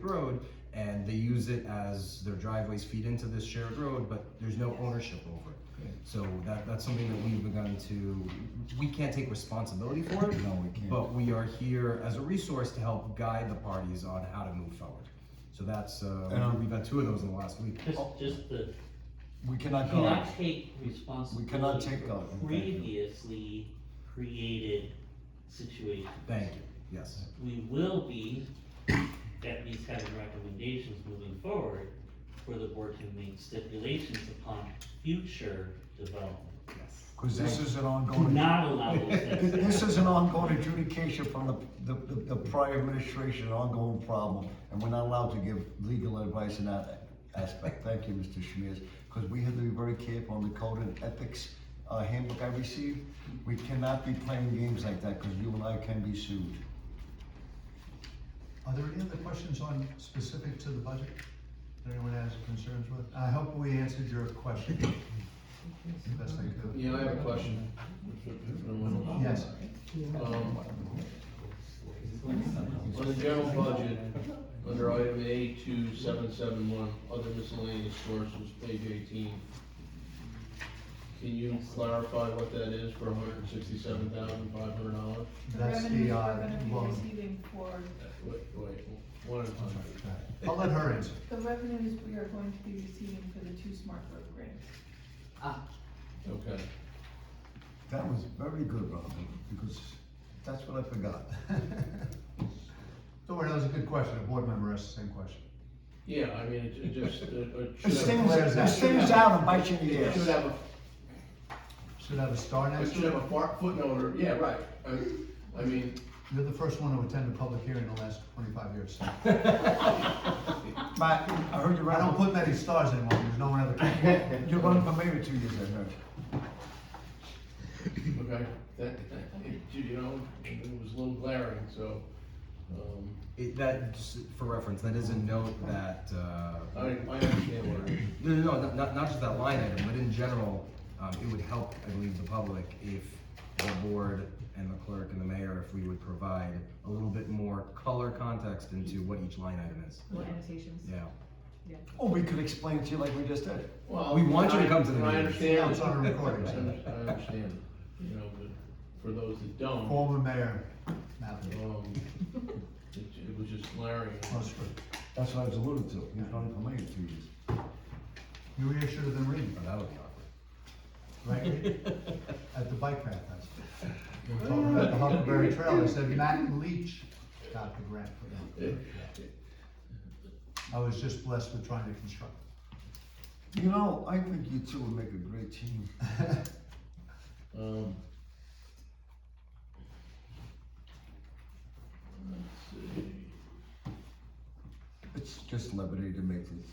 road and they use it as their driveways feed into this shared road, but there's no ownership over it. So that, that's something that we've begun to, we can't take responsibility for it, No, we can't. but we are here as a resource to help guide the parties on how to move forward. So that's, uh, And- we've had two of those in the last week. Just, just the, We cannot go, cannot take responsibility. cannot take for out, thank you. Previously created situation. Thank you, yes. We will be, at least having recommendations moving forward, for the board to make stipulations upon future development. because this is an Do ongoing, not allow those things to this happen. is an ongoing adjudication from the, the, the- the prior administration, an ongoing problem, and we're not allowed to give legal advice in that aspect. Thank you, Mr. Schmiers, because we have to be very careful on the code and ethics uh, handbook I received. We cannot be playing games like that, because you and I can be sued. Are there any other questions on specific to the budget that anyone has concerns with? I hope we answered your question. Best I could. Yeah, I have a question. Yes, Um, On the general budget, under item A two seven seven one, other miscellaneous sources, page eighteen. Can you clarify what that is for hundred and sixty-seven thousand five hundred dollars? that's the, revenues uh, we're gonna be loan. receiving for, Wait, wait, one at a I'm time. sorry, go ahead. I'll let her answer. the revenues we are going to be receiving for the two smart road grants. Okay, That was very good, Robin, because that's what I forgot. Don't worry, that was a good question. A board member asked the same question. yeah, I mean, it, it just, it, it should This have. thing's, this thing's out and bites you in the It should ass. have a Should have a star next It should to have a it. far- footnote or, yeah, right. I I mean, You're the first one to attend a public hearing in the last twenty-five years. Matt, I heard you I ran, don't put many stars anymore, because no one ever can. you run for mayor two years, I heard. okay, that, that- you know, it was a little glaring, so, um, It, that, just for reference, that is a note that, I, uh, I understand what it is. no, no, no, not- not, not just that line item, but in general, um, it would help, I believe, the public if the board and the clerk and the mayor, if we would provide a little bit more color context into what each line item is. Little annotations. Yeah. Or Oh, we could explain it to you like we just did. Well, We want you to come to the I- I meeting. understand. It's on a recording, I so. under- I understand, you know, but for those that don't, Former mayor, Mappin. um, it, it was just glaring. Close for, That's what I was alluding to, you run for mayor two years. you really should have been reading, Oh, that would be awkward. right? At the bike path, that's. We were talking about the Huckleberry Trail, they said Matt Leach got the grant for that. It- I was just blessed with trying to construct. You know, I think you two would make a great team. Um. Let's see. It's just liberty to make this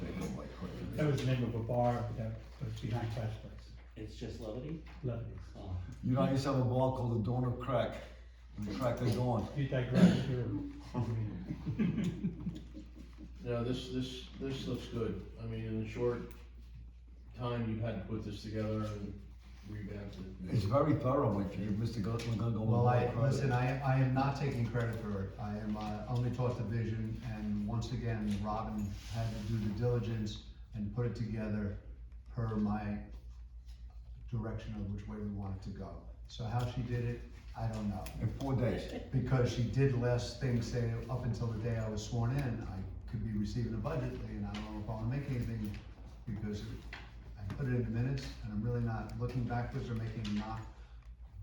thing go like That crazy. was the name of a bar that was behind Pat's place, It's just levity? Lebanese. Oh. You know, I used to have a ball called the Dawn of Crack, and Crack the Dawn. You digress, you No, this, this, this looks good. I mean, in a short time, you had to put this together and revamp It's it. very thorough, like, you, Mr. Gu- McGonagall. Well, I, listen, I, I am not taking credit for it. I am, uh, only taught the vision, and once again, Robin had to do the diligence and put it together per my direction of which way we wanted to go. So how she did it, I don't know. In four days. because she did less things, say, up until the day I was sworn in, I could be receiving a budget, and I don't know if I'll make anything, because I put it in the minutes, and I'm really not looking backwards or making a knock.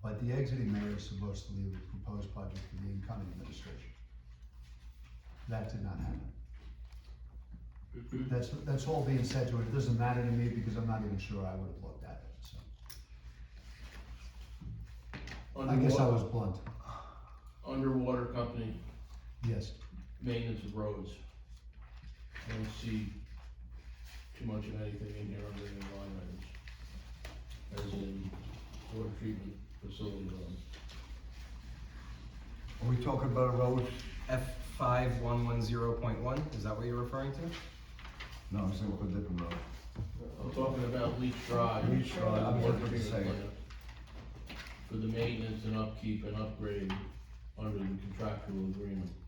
But the exiting mayor is supposed to leave a proposed budget for the incoming administration. That did not happen. That's, that's all being said to it, it doesn't matter to me, because I'm not even sure I would have looked at it, so. I guess I Underwa- was blunt, Underwater company, yes. maintenance of roads. I don't see too much of anything in here under the line items. As in water treatment facility loan. Are we talking about a road? F five one one zero point one, is that what you're referring to? No, I'm saying for a different road. I'm talking about leach drive. Leach drive, I was Water gonna treatment say. plant. For the maintenance and upkeep and upgrade under the contractual agreement.